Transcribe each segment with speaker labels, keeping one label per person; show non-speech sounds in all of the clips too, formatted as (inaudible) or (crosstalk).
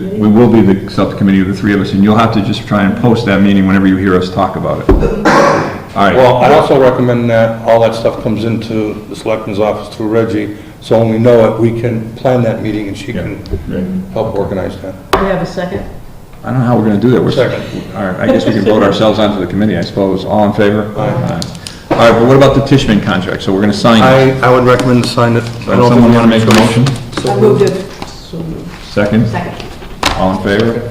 Speaker 1: We will be the subcommittee of the three of us, and you'll have to just try and post that meeting whenever you hear us talk about it. All right,
Speaker 2: Well, I also recommend that all that stuff comes into the selectman's office through Reggie, so when we know it, we can plan that meeting and she can help organize that.
Speaker 3: We have a second?
Speaker 1: I don't know how we're gonna do that. We're-
Speaker 2: Second.
Speaker 1: All right, I guess we can vote ourselves onto the committee, I suppose. All in favor?
Speaker 2: Aye.
Speaker 1: All right, but what about the Tishman contract? So we're gonna sign it.
Speaker 2: I, I would recommend sign it. I
Speaker 1: Does
Speaker 2: don't
Speaker 1: Someone wanna make a motion?
Speaker 3: I moved it. So moved.
Speaker 1: Second?
Speaker 3: Second.
Speaker 1: All in favor?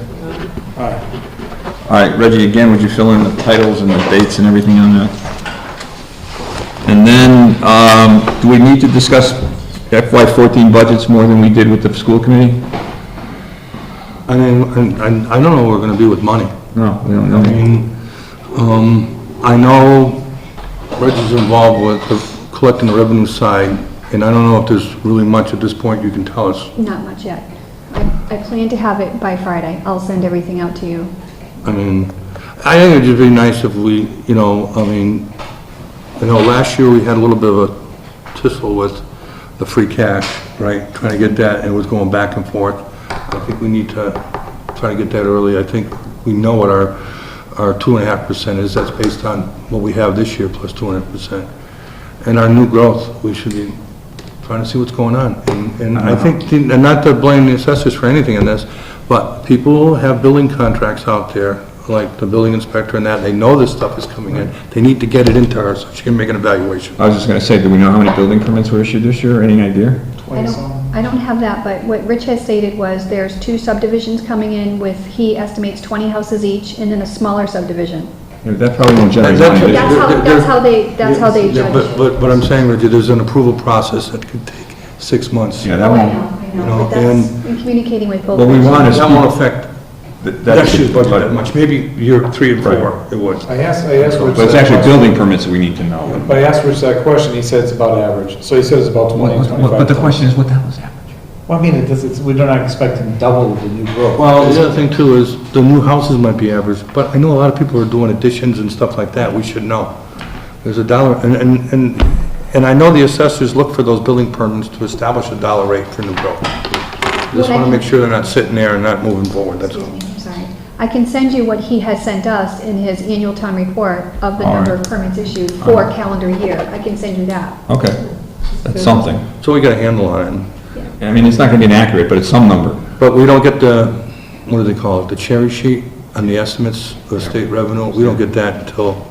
Speaker 1: All right, Reggie, again, would you fill in the titles and the dates and everything on that? And then, um, do we need to discuss FY fourteen budgets more than we did with the school committee?
Speaker 2: I mean, I, I- I don't know where we're gonna be with money.
Speaker 1: No, we don't
Speaker 2: I
Speaker 1: know.
Speaker 2: mean, um, I know Reggie's involved with the collecting the revenue side, and I don't know if there's really much at this point you can tell us.
Speaker 4: Not much yet. I, I plan to have it by Friday. I'll send everything out to you.
Speaker 2: I mean, I think it'd just be nice if we, you know, I mean, I know last year we had a little bit of a tussle with the free cash, right? Trying to get that, and it was going back and forth. I think we need to try to get that early. I think we know what our, our two and a half percent is. That's based on what we have this year plus two and a half percent. And our new growth, we should be trying to see what's going on. And- And I think, and not to blame the assessors for anything in this, but people have building contracts out there, like the building inspector and that, they know this stuff is coming in. They need to get it into her so she can make an evaluation.
Speaker 1: I was just gonna say, do we know how many building permits were issued this year? Any idea?
Speaker 4: I don't, I don't have that, but what Rich has stated was there's two subdivisions coming in with, he estimates 20 houses each, and then a smaller subdivision.
Speaker 1: Yeah, That probably won't generate
Speaker 2: That's-
Speaker 1: money.
Speaker 4: That's how, that's how they, that's how they
Speaker 2: Yeah,
Speaker 4: judge
Speaker 2: But,
Speaker 4: it.
Speaker 2: but, but I'm saying, Reggie, there's an approval process that could take six months.
Speaker 1: Yeah,
Speaker 2: That
Speaker 1: that
Speaker 4: Oh, I know,
Speaker 1: won't,
Speaker 4: I
Speaker 2: You
Speaker 4: know,
Speaker 2: know,
Speaker 4: but that's,
Speaker 2: and-
Speaker 4: in communicating with both.
Speaker 1: What we want is.
Speaker 2: won't affect
Speaker 1: That-
Speaker 2: next year's budget
Speaker 1: but-
Speaker 2: that much, maybe year three and four,
Speaker 1: Right.
Speaker 2: it would.
Speaker 5: I asked, I asked Rich.
Speaker 1: But it's
Speaker 5: that
Speaker 1: actually
Speaker 5: question.
Speaker 1: building permits that we need to know.
Speaker 5: But I asked Rich that question, he said it's about average, so he said it's about twenty, twenty-five.
Speaker 1: But the question is, what the hell is happening?
Speaker 6: Well, I mean, it does, it's, we're not expecting double the new growth.
Speaker 2: Well, the other thing too is, the new houses might be average, but I know a lot of people are doing additions and stuff like that, we should know. There's a dollar, and, and, and, and I know the assessors look for those building permits to establish a dollar rate for new growth. Just wanna make sure they're not sitting there and not moving forward, that's
Speaker 4: Excuse
Speaker 2: all.
Speaker 4: me, I'm sorry. I can send you what he has sent us in his annual town report of the
Speaker 1: All
Speaker 4: number
Speaker 1: right.
Speaker 4: of permits issued for calendar year. I can send you that.
Speaker 1: Okay, that's something.
Speaker 2: So we got a handle on it,
Speaker 1: I mean, it's not gonna be inaccurate, but it's some number.
Speaker 2: but we don't get the, what do they call it, the cherry sheet on the estimates of state revenue, we don't get that until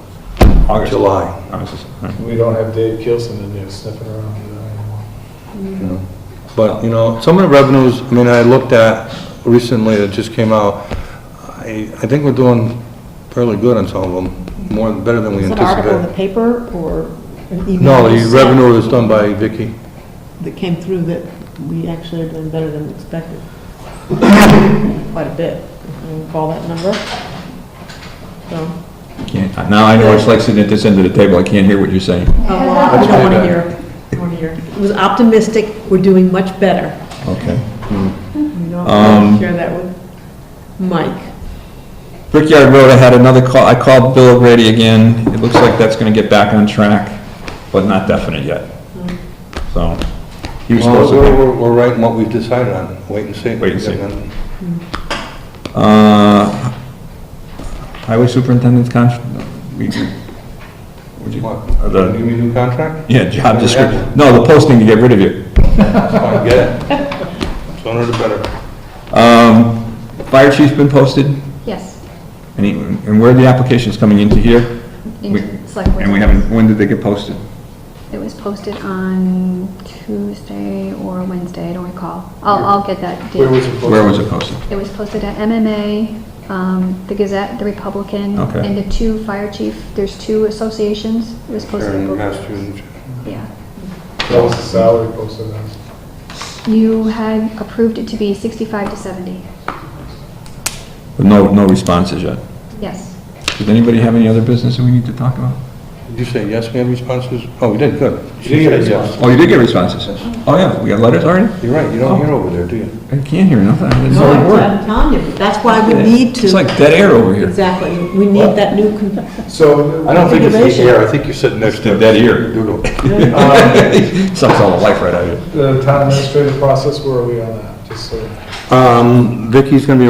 Speaker 1: August.
Speaker 2: July.
Speaker 1: August is- all right.
Speaker 5: We don't have Dave Kilson in there sniffing around anymore.
Speaker 2: But, you know, some of the revenues, I mean, I looked at recently that just came out, I, I think we're doing fairly good on some of them, more, better than we
Speaker 3: Is that article in the
Speaker 2: anticipated.
Speaker 3: paper or an email?
Speaker 2: No,
Speaker 3: you
Speaker 2: the
Speaker 3: sent
Speaker 2: revenue is done by Vicky.
Speaker 3: That came through that we actually are doing better than expected. Quite a bit. You Recall that number? So, uh,
Speaker 1: Can't- Now I know it's like sitting at this end of the table, I can't hear what you're saying.
Speaker 3: oh, well, I don't want to hear, I don't want to hear. It was optimistic, we're doing much better.
Speaker 1: Okay.
Speaker 3: You know,
Speaker 1: Um,
Speaker 3: I'll share that with Mike.
Speaker 1: Brickyard Road, I had another call, I called Bill O'Grady again, it looks like that's gonna get back on track, but not definite yet. So, he was supposed
Speaker 2: Well, we're,
Speaker 1: to,
Speaker 2: we're- we're right in what we've decided on, wait and see.
Speaker 1: Wait and see. uh, highway superintendent's contract, we, would you,
Speaker 2: What,
Speaker 1: The-
Speaker 2: you mean new (laughs) contract?
Speaker 1: yeah, job description, no, the posting to get rid of you.
Speaker 2: I get it. (laughs) Sooner the better.
Speaker 1: Um, fire chief's been posted?
Speaker 4: Yes,
Speaker 1: And he- and where are the applications coming into here? We-
Speaker 4: into the select board.
Speaker 1: And we haven't, when did they get posted?
Speaker 4: It was posted on Tuesday or Wednesday, I don't recall. I'll, I'll get that
Speaker 5: Where was
Speaker 4: date.
Speaker 5: it?
Speaker 1: Where was it posted?
Speaker 4: It was posted at MMA, um, the Gazette, the Republican,
Speaker 1: Okay.
Speaker 4: and the two fire chief, there's two associations. It was posted.
Speaker 2: Karen,
Speaker 4: both-
Speaker 2: Massachusetts.
Speaker 4: Yeah.
Speaker 5: That was the salary posted on.
Speaker 4: You had approved it to be 65 to 70.
Speaker 1: No, no responses yet.
Speaker 4: Yes.
Speaker 1: Does anybody have any other business that we need to talk about?
Speaker 2: Did you say yes, we have responses? Oh, we did, good.
Speaker 5: You did
Speaker 2: She
Speaker 5: get
Speaker 2: said
Speaker 5: responses.
Speaker 2: yes. Oh,
Speaker 1: Oh, you did get responses? Oh, yeah, we got letters already?
Speaker 2: You're right, you don't hear over there, do you?
Speaker 1: I can't hear nothing, it's
Speaker 3: No,
Speaker 1: not a
Speaker 3: I'm-
Speaker 1: word.
Speaker 3: I'm telling you, that's why we need to.
Speaker 1: It's like dead air over here.
Speaker 3: Exactly, we need that new, con-
Speaker 5: So.
Speaker 2: I don't think it's the
Speaker 3: Innovation.
Speaker 2: air, I think you're sitting next to.
Speaker 1: It's the dead ear.
Speaker 2: Doodle.
Speaker 5: um,
Speaker 1: Sucks all the life right out of you.
Speaker 5: uh, The town administrative process, where are we on that, just so.
Speaker 2: Um, Vicky's gonna be